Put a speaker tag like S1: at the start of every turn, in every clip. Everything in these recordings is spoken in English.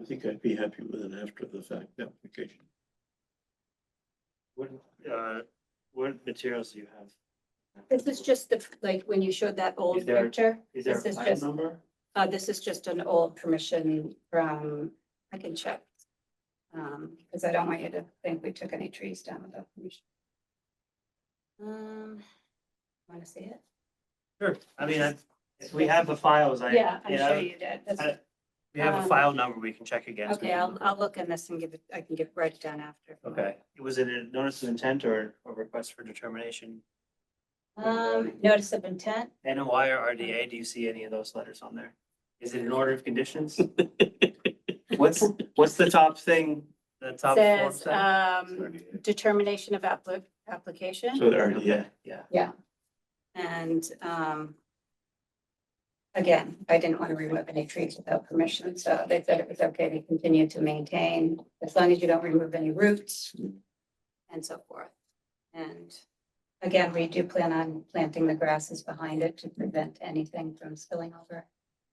S1: I think I'd be happy with an after the fact application.
S2: What, uh, what materials do you have?
S3: This is just the, like, when you showed that
S2: Is
S3: old
S2: there-
S3: picture,
S2: Is there
S3: this
S2: a
S3: is
S2: file
S3: just-
S2: number?
S3: uh, this is just an old permission from, I can check. Um, because I don't want you to think we took any trees down without permission. Um, want to see it?
S2: Sure. I mean, I- if we have the files, I.
S3: Yeah, I'm sure you did. That's-
S2: I- We have a
S3: um,
S2: file number we can check against.
S3: Okay, I'll, I'll look in this and give it, I can give it down after.
S2: Okay, was it a notice of intent or a request for determination?
S3: Um, notice of intent,
S2: NOI or RDA, do you see any of those letters on there? Is it an order of conditions? What's, what's the top thing, the top form
S3: says,
S2: thing?
S3: um, determination of appli- application.
S1: So there, yeah,
S2: Okay, Yeah,
S3: And um. Again, I didn't want to remove any trees without permission, so they said it was okay to continue to maintain as long as you don't remove any roots. And so forth. And again, we do plan on planting the grasses behind it to prevent anything from spilling over.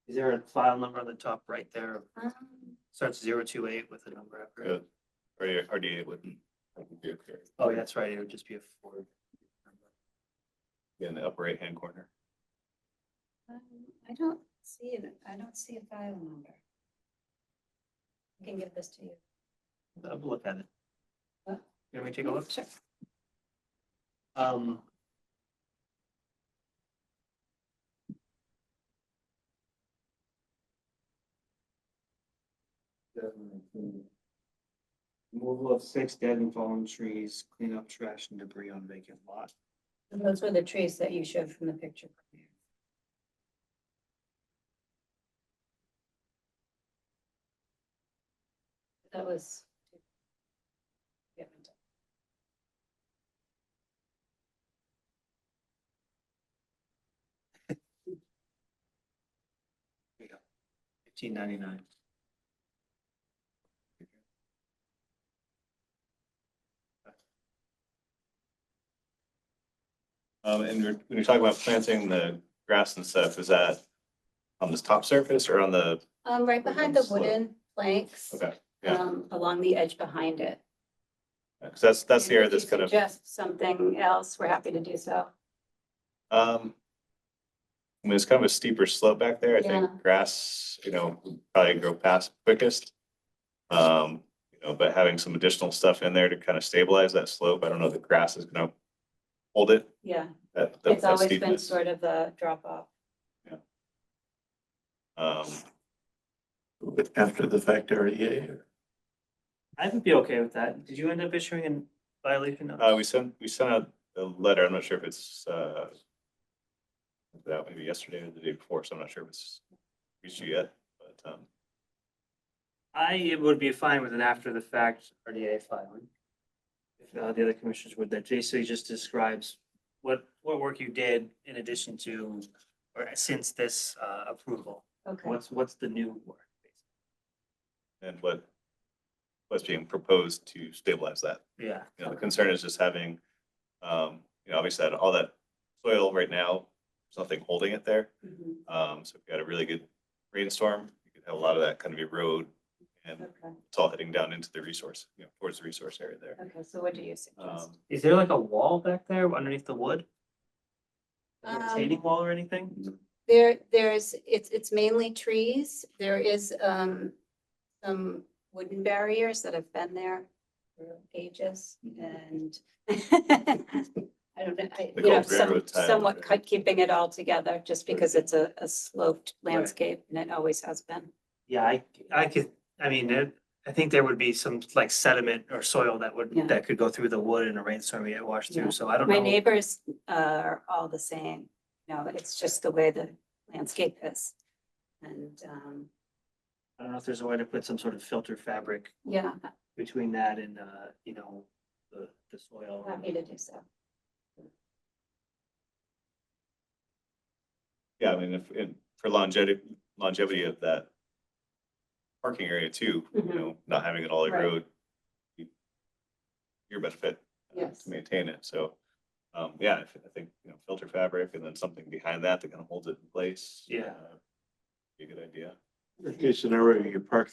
S2: is there a file number on the top right there?
S3: Um,
S2: Starts zero two eight with a number after it.
S4: Good. Or your RDA wouldn't. wouldn't be okay.
S2: Oh, that's right, it would just be a four.
S4: In the upper right hand corner.
S3: I don't see it, I don't see a file number. I can give this to you.
S2: I'll look at it.
S3: Huh?
S2: Can we take a look?
S3: Sure.
S2: Um. Removal of six dead and fallen trees, clean up trash and debris on vacant lot.
S3: Those were the trees that you showed from the picture. That was.
S2: Fifteen ninety-nine.
S4: Um, and you're- when you're talking about planting the grass and stuff, is that on this top surface or on the,
S3: Um, right behind the wooden planks.
S4: Okay, yeah.
S3: Um, along the edge behind it.
S4: because that's, that's the
S3: And
S4: area
S3: if you
S4: that's kind of,
S3: Suggest something else, we're happy to do so.
S4: um. I mean, it's kind of a steeper slope back there. I
S3: Yeah.
S4: think grass, you know, would probably grow past quickest. Um, you know, but having some additional stuff in there to kind of stabilize that slope. I don't know if the grass is gonna hold it.
S3: Yeah,
S4: that- that-
S3: it's
S4: that
S3: always been
S4: steepness.
S3: sort of a drop off.
S4: Um,
S1: with after the fact E REA.
S2: I would be okay with that. Did you end up issuing a violation notice?
S4: Uh, we sent, we sent out a letter, I'm not sure if it's, uh, that maybe yesterday or the day before, so I'm not sure if it's reached you yet, but, um,
S2: I would be fine with an after the fact RDA filing. If uh, the other commissioners would, that basically just describes what, what work you did in addition to, or since this uh, approval.
S3: Okay.
S2: What's, what's the new work?
S4: and what what's being proposed to stabilize that.
S2: Yeah,
S4: You know, the concern is just having, um, you know, obviously that all that soil right now, there's nothing holding it there.
S3: Mhm,
S4: Um, so if you had a really good rainstorm, you could have a lot of that kind of erode and
S3: Okay,
S4: it's all heading down into the resource, you know, towards the resource area there.
S3: okay, so what do you suggest?
S4: Um,
S2: is there like a wall back there underneath the wood? A
S3: Um,
S2: Retaining wall or anything?
S3: There, there's, it's, it's mainly trees. There is, um, some wooden barriers that have been there for ages and I don't know, I,
S4: The
S3: you know,
S4: old
S3: some,
S4: railroad ties.
S3: somewhat cut- keeping it all together just because it's a, a sloped
S2: Right.
S3: landscape and it always has been.
S2: Yeah, I, I could, I mean, it- I think there would be some like sediment or soil that would,
S3: Yeah.
S2: that could go through the wood in a rainstorm, and get washed
S3: Yeah.
S2: through, so I don't know.
S3: My neighbors uh, are all the same. You know, it's just the way the landscape is. And, um,
S2: I don't know if there's a way to put some sort of filter fabric
S3: yeah,
S2: between that and, uh, you know, the, the soil.
S3: happy to do so.
S4: Yeah, I mean, if, and for longevity, longevity of that parking area too, you
S3: Mhm.
S4: know, not having it all
S3: Right.
S4: erode. you- Your benefit. uh,
S3: Yes.
S4: To maintain it, so, um, yeah, I thi- I think, you know, filter fabric and then something behind that that kind of holds it in place.
S2: Yeah.
S4: uh, Be a good idea.
S1: Worst case scenario, you park